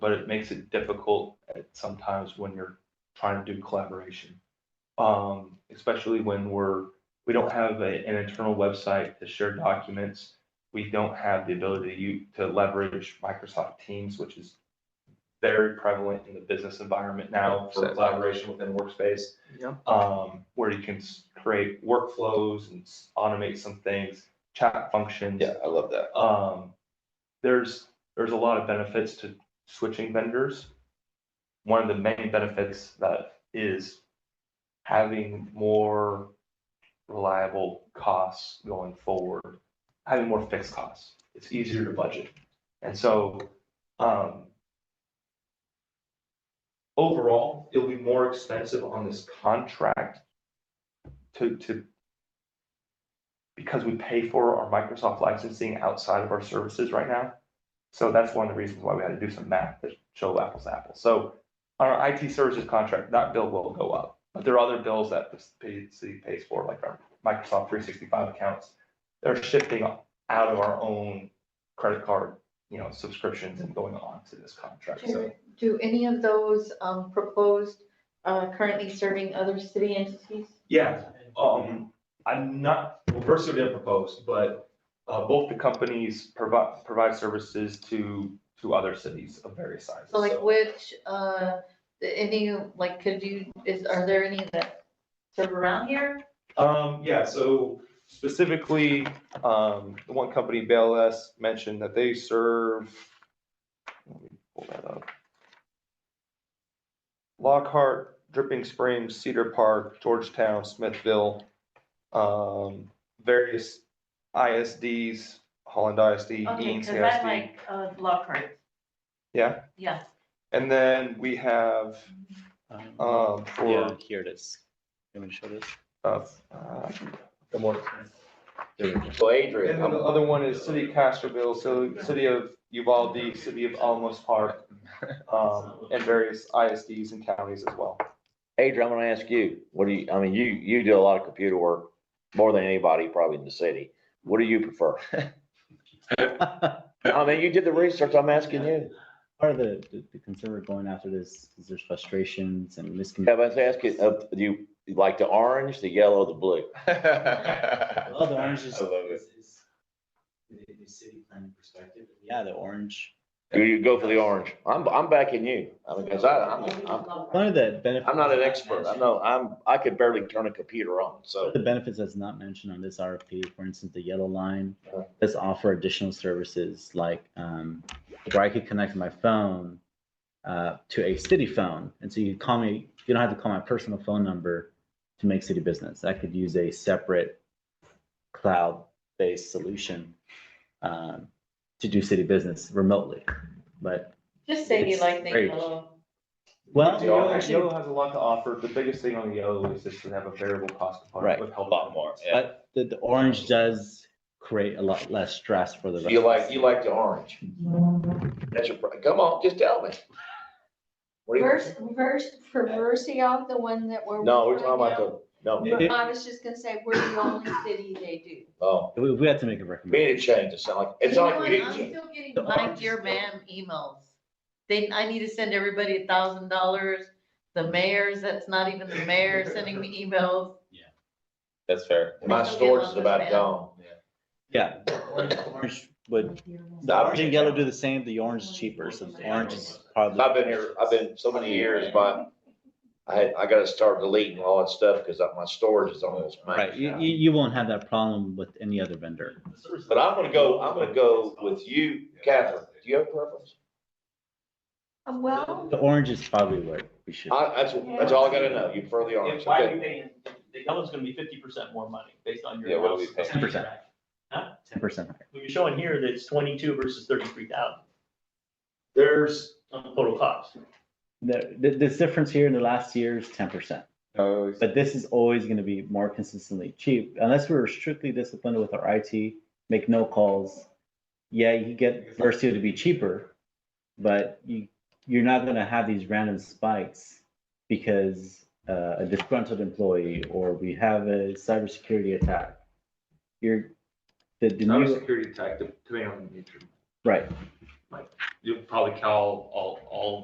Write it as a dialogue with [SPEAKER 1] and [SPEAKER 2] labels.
[SPEAKER 1] but it makes it difficult at sometimes when you're trying to do collaboration. Um, especially when we're, we don't have a- an internal website to share documents. We don't have the ability to u- to leverage Microsoft Teams, which is very prevalent in the business environment now for
[SPEAKER 2] Exactly.
[SPEAKER 1] collaboration within workspace
[SPEAKER 2] Yeah.
[SPEAKER 1] um, where you can s- create workflows and s- automate some things, chat functions.
[SPEAKER 2] Yeah, I love that.
[SPEAKER 1] Um, there's, there's a lot of benefits to switching vendors. One of the main benefits that is having more reliable costs going forward, having more fixed costs. It's easier to budget. And so, um, overall, it'll be more expensive on this contract to, to, because we pay for our Microsoft licensing outside of our services right now. So that's one of the reasons why we had to do some math to show apples to apples. So on our IT services contract, that bill will go up. But there are other bills that the city pays for, like our Microsoft three sixty-five accounts. They're shifting out of our own credit card, you know, subscriptions and going on to this contract, so.
[SPEAKER 3] Do- Do any of those um, proposed uh, currently serving other city entities?
[SPEAKER 1] Yeah, um, I'm not, well, first we didn't propose, but, uh, both the companies provide, provide services to, to other cities of various sizes.
[SPEAKER 3] So like which, uh, the- any, like, could you, is, are there any that serve around here?
[SPEAKER 1] Um, yeah, so specifically, um, the one company, BLS, mentioned that they serve, let me pull that up. Lockhart, Dripping Springs, Cedar Park, Georgetown, Smithville, um, various ISDs, Holland ISD,
[SPEAKER 4] Okay,
[SPEAKER 1] Dean's
[SPEAKER 4] because I
[SPEAKER 1] ISD.
[SPEAKER 4] like uh, Lockhart.
[SPEAKER 1] Yeah.
[SPEAKER 4] Yeah,
[SPEAKER 1] And then we have,
[SPEAKER 5] Um,
[SPEAKER 1] um,
[SPEAKER 5] Yeah,
[SPEAKER 1] for,
[SPEAKER 5] here it is. You want me to show this?
[SPEAKER 1] uh, uh, the more,
[SPEAKER 5] There we go.
[SPEAKER 2] So Adrian.
[SPEAKER 1] And then the other one is City of Castroville, so City of Uvalde, City of Alamos Park, um, and various ISDs and counties as well.
[SPEAKER 2] Adrian, I'm gonna ask you, what do you, I mean, you, you do a lot of computer work, more than anybody probably in the city. What do you prefer? I mean, you did the research, I'm asking you.
[SPEAKER 5] Part of the, the- the concern we're going after this is there's frustrations and
[SPEAKER 2] Yeah,
[SPEAKER 5] miscommunication.
[SPEAKER 2] but I was asking, uh, do you you like the orange, the yellow, the blue?
[SPEAKER 5] Well, the orange is.
[SPEAKER 2] uh, I love it.
[SPEAKER 5] is- is The, the city planning perspective. Yeah, the orange.
[SPEAKER 2] You, you go for the orange. I'm, I'm backing you. I mean, cause I, I'm, I'm,
[SPEAKER 5] One
[SPEAKER 4] Lockhart.
[SPEAKER 5] of the benefits.
[SPEAKER 2] I'm not an expert. I know, I'm, I could barely turn a computer on,
[SPEAKER 5] One
[SPEAKER 2] so.
[SPEAKER 5] of The benefits that's not mentioned on this RFP, for instance, the yellow line,
[SPEAKER 2] Uh-huh.
[SPEAKER 5] does offer additional services like, um, where I could connect my phone uh, to a city phone. And so you call me, you don't have to call my personal phone number to make city business. I could use a separate cloud-based solution um, to do city business remotely. But,
[SPEAKER 3] Just say you like the uh,
[SPEAKER 5] Great.
[SPEAKER 3] yellow.
[SPEAKER 5] well,
[SPEAKER 2] The yellow-
[SPEAKER 5] actually,
[SPEAKER 1] Yellow has a lot to offer. The biggest thing on the yellow is just to have a variable cost
[SPEAKER 5] Right.
[SPEAKER 1] component with health. benefits.
[SPEAKER 2] yeah.
[SPEAKER 5] but the, the orange does create a lot less stress for the.
[SPEAKER 2] You
[SPEAKER 5] rest of
[SPEAKER 2] like,
[SPEAKER 5] us.
[SPEAKER 2] you like the orange. That's your, pri- come on, just tell me. What do you-
[SPEAKER 6] Reverse, reverse, reversing out the one that we're.
[SPEAKER 2] No, we're
[SPEAKER 6] working
[SPEAKER 2] talking about
[SPEAKER 6] on
[SPEAKER 2] the, no,
[SPEAKER 6] now. I was just gonna say, we're the only city they do.
[SPEAKER 2] oh,
[SPEAKER 5] We, we have to make a
[SPEAKER 2] we
[SPEAKER 5] recommendation.
[SPEAKER 2] need to change. It sound like,
[SPEAKER 3] You
[SPEAKER 2] it's
[SPEAKER 3] know
[SPEAKER 2] like we
[SPEAKER 3] what?
[SPEAKER 2] need
[SPEAKER 3] I'm
[SPEAKER 2] to change.
[SPEAKER 3] still getting my dear ma'am emails. They, I need to send everybody a thousand dollars. The mayors, that's not even the mayor sending me emails.
[SPEAKER 7] That's fair.
[SPEAKER 2] My storage is about gone.
[SPEAKER 5] Yeah, orange- orange would, the orange and yellow do the same, the orange is cheaper, so the orange is probably.
[SPEAKER 2] I've been here, I've been so many years, my, I had, I gotta start deleting all that stuff because my storage is almost
[SPEAKER 5] Right,
[SPEAKER 2] maxed
[SPEAKER 5] you,
[SPEAKER 2] out.
[SPEAKER 5] you, you won't have that problem with any other vendor.
[SPEAKER 2] But I'm gonna go, I'm gonna go with you, Catherine. Do you have a preference?
[SPEAKER 6] Uh, Well,
[SPEAKER 5] The orange is probably what we should,
[SPEAKER 7] Uh,
[SPEAKER 2] I, that's, that's all I gotta know. You prefer the orange.
[SPEAKER 8] If why
[SPEAKER 2] Okay.
[SPEAKER 8] you paying, the yellow's gonna be fifty percent more money based on your.
[SPEAKER 7] Yeah, what are we
[SPEAKER 8] house.
[SPEAKER 7] paying?
[SPEAKER 5] 10%.
[SPEAKER 8] Huh?
[SPEAKER 5] ten percent higher.
[SPEAKER 8] What you're showing here, that's twenty-two versus thirty-three thousand
[SPEAKER 2] There's.
[SPEAKER 8] on total cost.
[SPEAKER 5] The, the, this difference here in the last year is ten percent,
[SPEAKER 7] Oh,
[SPEAKER 5] but this is always gonna be more consistently cheap, unless we're strictly disciplined with our IT, make no calls. Yeah, you get Versio to be cheaper, but you, you're not gonna have these random spikes because uh, a disgruntled employee or we have a cybersecurity attack. You're, the, the new,
[SPEAKER 1] Cybersecurity tech, depending on the nature.
[SPEAKER 5] right,
[SPEAKER 1] Like, you'll probably call all, all